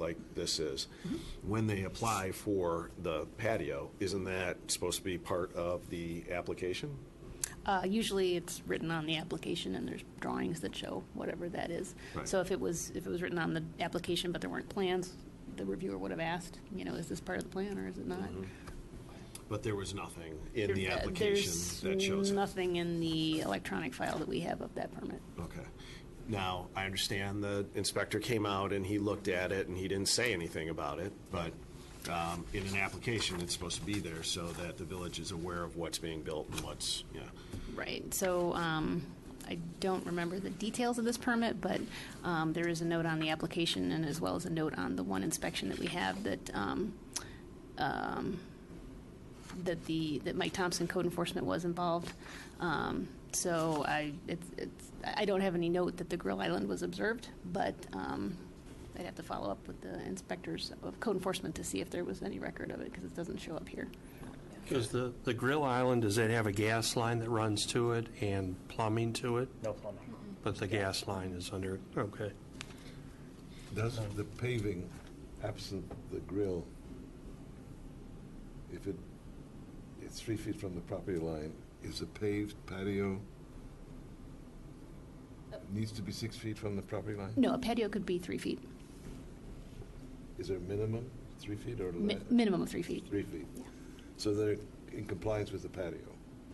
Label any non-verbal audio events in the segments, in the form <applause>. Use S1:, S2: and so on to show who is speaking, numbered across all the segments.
S1: like this is, when they apply for the patio, isn't that supposed to be part of the application?
S2: Uh, Usually, it's written on the application, and there's drawings that show whatever that is.
S1: Right.
S2: So if it was, if it was written on the application, but there weren't plans, the reviewer would have asked, you know, is this part of the plan or is it not?
S1: But there was nothing Mm-hmm. in the
S2: There- uh,
S1: application that shows
S2: There's
S1: it.
S2: nothing in the electronic file that we have of that permit.
S1: Okay. Now, I understand the inspector came out and he looked at it and he didn't say anything about it, but um, in an application, it's supposed to be there so that the village is aware of what's being built and what's, yeah.
S2: Right, so um, I don't remember the details of this permit, but um, there is a note on the application and as well as a note on the one inspection that we have that, um, um, that the, that Mike Thompson, code enforcement, was involved. Um, So I, it's, it's, I don't have any note that the Grill Island was observed, but um, I'd have to follow up with the inspectors of code enforcement to see if there was any record of it, because it doesn't show up here.
S3: Because the, the Grill Island, does it have a gas line that runs to it and plumbing to it?
S4: No plumbing.
S3: But the gas line is under, okay.
S5: Does the paving absent the grill, if it, it's three feet from the property line, is a paved patio, needs to be six feet from the property line?
S2: No, a patio could be three feet,
S5: Is there a minimum, three feet or
S2: mi-
S5: less?
S2: minimum of three feet.
S5: Three feet? So they're in compliance with the patio?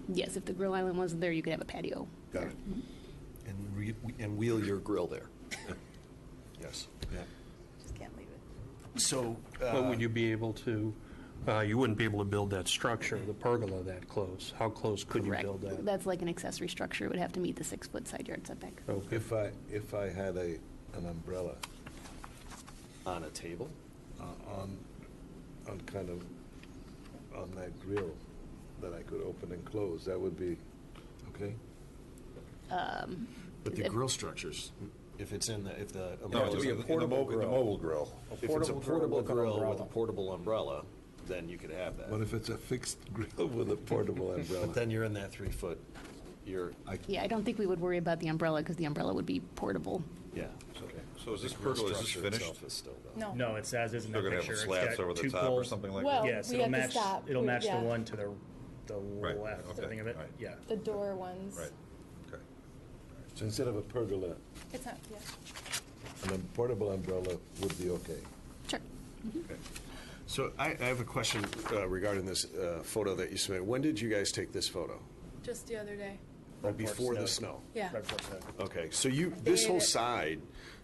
S2: Yes, if the grill island wasn't there, you could have a patio. Mm-hmm.
S5: Got it?
S1: And re- and wheel your grill there. <laughs> Yes.
S5: Yeah.
S6: Just can't leave it.
S1: So,
S4: Uh,
S3: But would you be able to, uh, you wouldn't be able to build that structure, the pergola that close? How close could you
S2: Correct.
S3: build that?
S2: That's like an accessory structure. It would have to meet the six-foot side yard setback.
S3: Okay.
S5: If I, if I had a, an umbrella
S1: on a table?
S5: uh, on, on kind of, on that grill that I could open and close, that would be, okay?
S1: But the
S2: If-
S1: grill structures, if it's in the, if the.
S7: No, it would be a portable grill.
S8: The mobile grill.
S1: If it's a portable
S7: with an
S1: grill with a
S7: umbrella.
S1: portable umbrella, then you could have
S5: What
S1: that.
S5: if it's a fixed grill with a portable
S1: But
S5: umbrella?
S1: then you're in that three foot, you're,
S2: Yeah, I don't think we would worry about the umbrella because the umbrella would be portable.
S1: yeah.
S8: So is this
S1: The grill
S8: pergola, is this
S1: structure
S8: finished?
S1: itself is still the-
S6: No.
S4: No, it's as is in the
S8: They're gonna
S4: picture.
S8: have
S4: It's
S8: slabs
S4: got
S8: over the
S4: two
S8: top or
S4: poles.
S8: something like
S6: Well-
S8: that?
S4: Yes,
S6: we
S4: it'll
S6: have to
S4: match,
S6: stop.
S4: it'll
S6: We-
S4: match the
S6: yeah.
S4: one to the, the
S8: Right,
S4: left, I
S8: okay,
S4: think of it,
S8: right.
S4: yeah.
S6: The door ones.
S8: Right, okay.
S5: So instead of a pergola,
S6: It's not, yeah.
S5: an um- portable umbrella would be okay.
S2: Sure.
S1: So I, I have a question uh, regarding this uh, photo that you submitted. When did you guys take this photo?
S6: Just the other day.
S1: Right Before the snow?
S4: snow.
S6: Yeah.
S4: Right before snow.
S1: Okay, so you, this whole
S6: They-
S1: side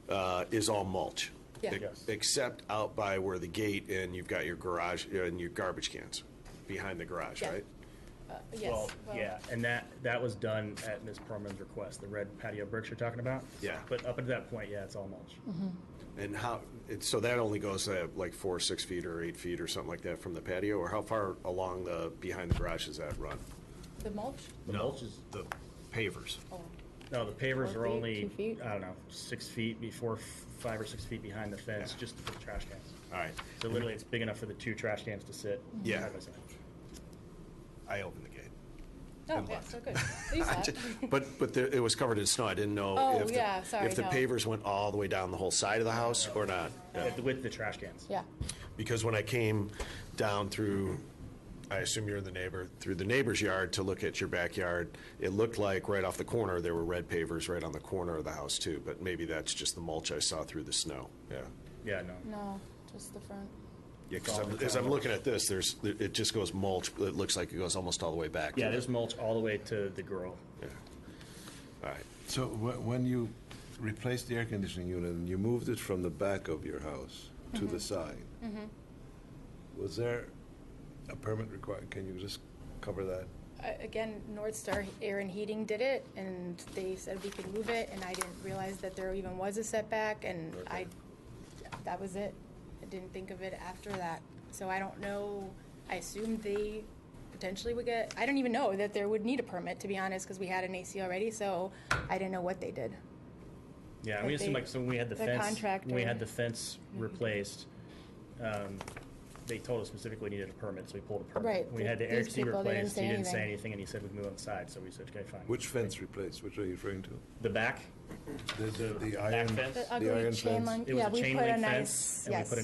S1: uh, is all mulch?
S6: Yeah.
S1: e-
S4: Yes.
S1: Except out by where the gate and you've got your garage, uh, and your garbage cans, behind the garage,
S6: Yeah.
S1: right?
S6: Uh,
S4: Well,
S6: Yes. well,
S4: yeah, and that, that was done at Ms. Perman's request, the red patio bricks you're talking about?
S1: Yeah.
S4: But up until that point, yeah, it's all mulch.
S6: Mm-hmm.
S1: And how, it- so that only goes uh, like four, six feet or eight feet or something like that from the patio? Or how far along the, behind the garage does that run?
S6: The mulch?
S4: The mulch is,
S1: The pavers.
S6: Oh,
S4: no, the pavers
S6: Four
S4: are
S6: feet,
S4: only,
S6: two feet?
S4: I don't know, six feet before, f- five or six feet behind the fence, just for the trash cans.
S1: All right,
S4: So literally, it's big enough for the two trash cans to sit.
S1: Yeah.
S4: side by side.
S1: I opened the gate.
S6: oh, yeah, so good. You
S1: I
S6: saw
S1: ju- <laughs>
S6: it.
S1: But, but there- it was covered in snow. I didn't know
S6: Oh,
S1: if
S6: yeah,
S1: the,
S6: sorry,
S1: if the
S6: no.
S1: pavers went all the way down the whole side of the house or not. Yeah.
S4: With- With the trash cans.
S6: Yeah.
S1: Because when I came down through, I assume you're the neighbor, through the neighbor's yard to look at your backyard, it looked like right off the corner, there were red pavers right on the corner of the house too. But maybe that's just the mulch I saw through the snow. Yeah.
S4: Yeah, no.
S6: No, just the front.
S1: Yeah, because as I'm looking at this, there's, it just goes mulch. It looks like it goes almost all the way back. to
S4: Yeah,
S1: the-
S4: there's mulch all the way to the grill.
S1: All right.
S5: So wh- when you replaced the air conditioning unit and you moved it from the back of your house to the side, was there a permit required? Can you just cover that?
S6: I- Again, North Star Air and Heating did it, and they said we could move it, and I didn't realize that there even was a setback, and I, that was it. I didn't think of it after that. So I don't know, I assumed they potentially would get, I don't even know that there would need a permit, to be honest, because we had an AC already, so I didn't know what they did.
S4: Yeah, and we
S6: But
S4: assume
S6: they-
S4: like so when we had the,
S6: the
S4: fence, when we
S6: contractor- Mhm.
S4: had the fence replaced, um, they told us specifically needed a permit, so we pulled a permit.
S6: Right,
S4: When we had the
S6: th-
S4: air
S6: these
S4: exceeder
S6: people, they didn't
S4: replaced. He
S6: say
S4: didn't say
S6: anything.
S4: anything, and he said we'd move on the side, so we said, okay, fine.
S5: Which fence replaced? Which are you referring to?
S4: The back,
S5: The, the
S4: back
S5: iron
S4: fence.
S6: The
S5: iron
S6: ugly chain
S5: fence.
S6: link,
S4: It was
S6: yeah,
S4: a
S6: we
S4: chain
S6: put a
S4: link
S6: nice,
S4: fence,
S6: yes.
S4: and we put a